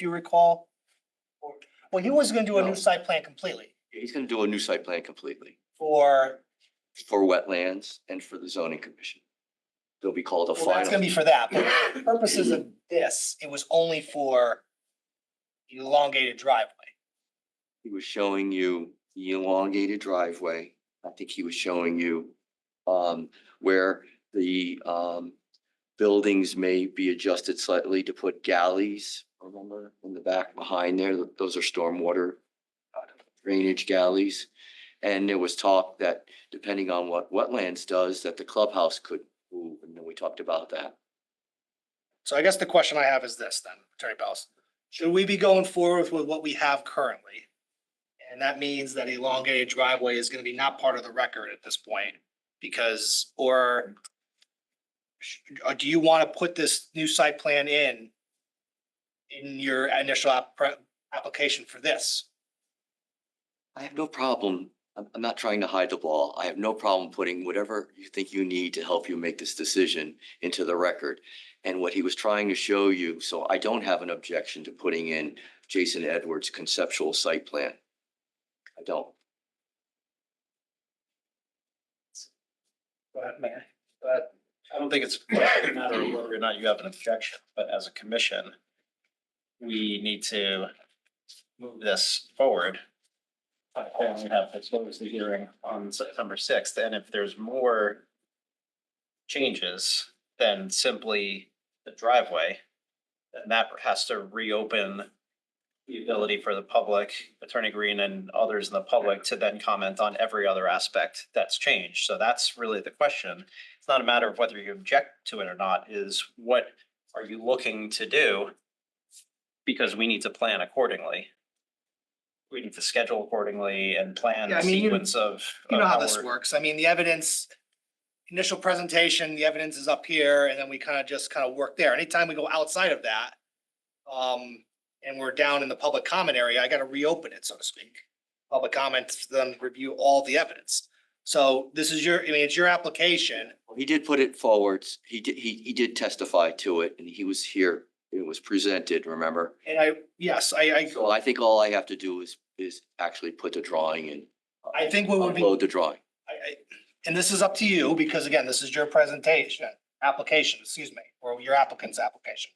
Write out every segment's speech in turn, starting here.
do you recall? Or- Well, he was gonna do a new No. site plan completely He's gonna do a new site plan completely for, for wetlands and for the zoning commission. They'll be called a well, that's gonna final. be for that, but for purposes of this, it was only for elongated driveway. He was showing you the elongated driveway. I think he was showing you um where the um buildings may be adjusted slightly to put galleys, remember, in the back behind there, those are stormwater uh, drainage galleys. And there was talk that depending on what wetlands does, that the clubhouse could move, and then we talked about that. So I guess the question I have is this then, Attorney Bellis. Should we be going forward with what we have currently? And that means that elongated driveway is gonna be not part of the record at this point because, or sh- or do you want to put this new site plan in in your initial app, pre- application for this? I have no problem. I'm, I'm not trying to hide the ball. I have no problem putting whatever you think you need to help you make this decision into the record. And what he was trying to show you, so I don't have an objection to putting in Jason Edwards' conceptual site plan. I don't. But man, But I don't think it's a matter of whether or not you have an objection, but as a commission, we need to move this forward. Uh, And we have to close the hearing on September sixth, and if there's more changes than simply the driveway, then that has to reopen the ability for the public, Attorney Green and others in the public to then comment on every other aspect that's changed. So that's really the question it's not a matter of whether you object to it or not, is what are you looking to do? Because we need to plan accordingly. We need to schedule accordingly and plan Yeah, I the mean, you- sequence of. you know of how this we're- works. I mean, the evidence, initial presentation, the evidence is up here, and then we kind of just kind of work there. Anytime we go outside of that, um, and we're down in the public comment area, I gotta reopen it, so to speak. Public comments, then review all the evidence. So this is your, I mean, it's your application. Well, He did put it forwards. He did, he, he did testify to it and he was here. It was presented, remember? And I, yes, I, I, So I think all I have to do is, is actually put the drawing in. I think what would be. Upload the drawing. I, I, and this is up to you, because again, this is your presentation, application, excuse me, or your applicant's application.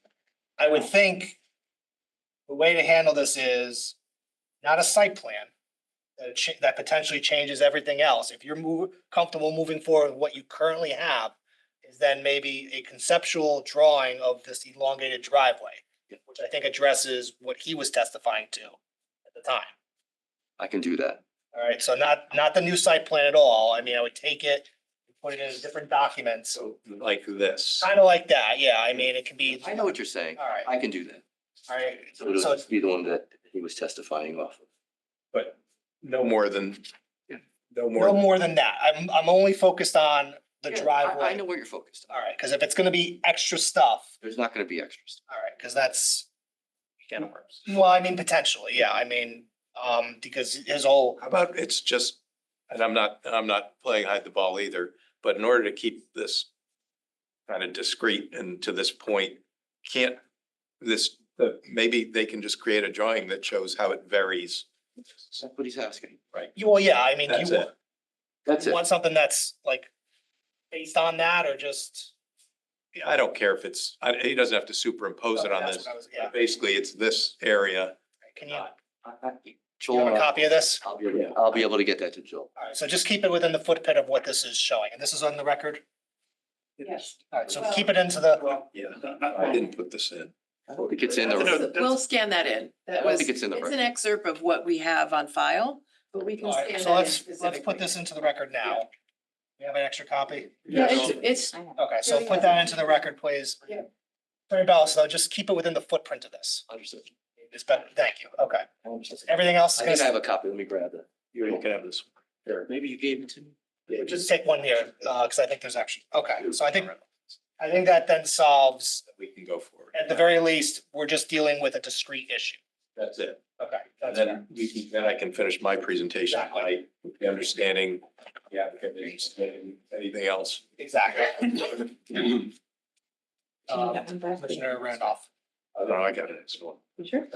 I would think the way to handle this is not a site plan that it cha- that potentially changes everything else. If you're move, comfortable moving forward with what you currently have, is then maybe a conceptual drawing of this elongated driveway, Yeah. which I think addresses what he was testifying to at the time. I can do that. All right, so not, not the new site plan at all. I mean, I would take it, put it in different documents, So like this. kind of like that. Yeah, I mean, it can be. I know what you're saying. All right, I can do that. all right. So it'll So just be the one that he was testifying off of. But no more than, no no more, more than that. I'm, I'm only focused on the Yeah, I- driveway. I know where you're focused. All right, because if it's gonna be extra stuff, There's not gonna be extras. all right, because that's, Can of worms. well, I mean, potentially, yeah, I mean, um, because his whole, how about it's just, and I'm not, and I'm not playing hide the ball either, but in order to keep this kind of discreet and to this point, can't this, the- maybe they can just create a drawing that shows how it varies. That's what he's asking. you, well, yeah, I mean, That's you it. want, That's you it. want something that's like based on that or just? I don't care if it's, I, he doesn't have to superimpose it on That's this. Uh, what I was- Yeah, Basically, it's this area. can you, I- I- you have uh, Joel, a copy of this? I'll be, able- I'll be able to get that to Joel. All right, so just keep it within the footprint of what this is showing, and this is on the record? Yes. All right, so keep it into the, Yeah. I didn't put this in. I don't think it's in the, We'll scan that in. I That don't was, think it's in the it's record. an excerpt of what we have on file, but we can all right, scan so that in let's, let's put specifically. this into the record now. We have an extra copy? Yeah, it's, it's, Okay, so put that into the record, please. Yeah. Attorney Ballas, though, just keep it within the footprint of this. Understood. It's better, thank you, okay. I understand. Everything else I is think I gonna, have a copy. Let me grab that. You can have this. Here, maybe you gave it to me. Yeah, just take one here, uh, because I think there's actually, okay, so I think, I think that then solves, We can go forward. at the very least, we're just dealing with a discrete issue. That's it. Okay, And that's fair. then we can, then I can finish my presentation, Exactly. I, the understanding, the applicant, and anything else. Oh, exactly. Can you Um, get one back? Commissioner Randolph. I don't know, I got it. It's cool. Sure.